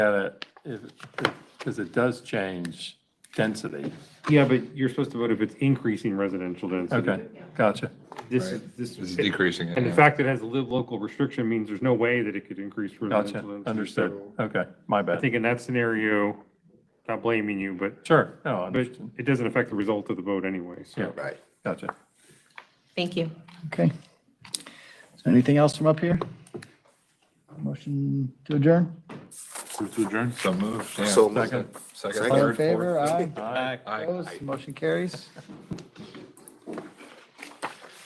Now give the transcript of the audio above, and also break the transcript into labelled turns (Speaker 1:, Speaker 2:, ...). Speaker 1: at it, if, because it does change density.
Speaker 2: Yeah, but you're supposed to vote if it's increasing residential density.
Speaker 1: Okay, gotcha.
Speaker 2: This, this.
Speaker 3: This is decreasing it.
Speaker 2: And the
Speaker 3: yeah.
Speaker 2: fact that it has a live local restriction means there's no way that it could increase residential
Speaker 1: Gotcha.
Speaker 2: density.
Speaker 1: Understood.
Speaker 2: So
Speaker 1: Okay, my
Speaker 2: I
Speaker 1: bad.
Speaker 2: think in that scenario, not blaming you, but,
Speaker 1: Sure. No, I
Speaker 2: but
Speaker 1: understand.
Speaker 2: it doesn't affect the result of the vote anyway, so.
Speaker 1: Yeah.
Speaker 4: Right.
Speaker 1: Gotcha.
Speaker 5: Thank you.
Speaker 6: Okay. Is there anything else from up here? Motion to adjourn?
Speaker 3: So moved. yeah.
Speaker 4: So moved.
Speaker 3: Second,
Speaker 4: Second.
Speaker 3: second,
Speaker 6: All in
Speaker 3: third,
Speaker 6: favor?
Speaker 3: fourth.
Speaker 6: Aye.
Speaker 1: Aye.
Speaker 3: Aye.
Speaker 6: Opposed? Motion carries.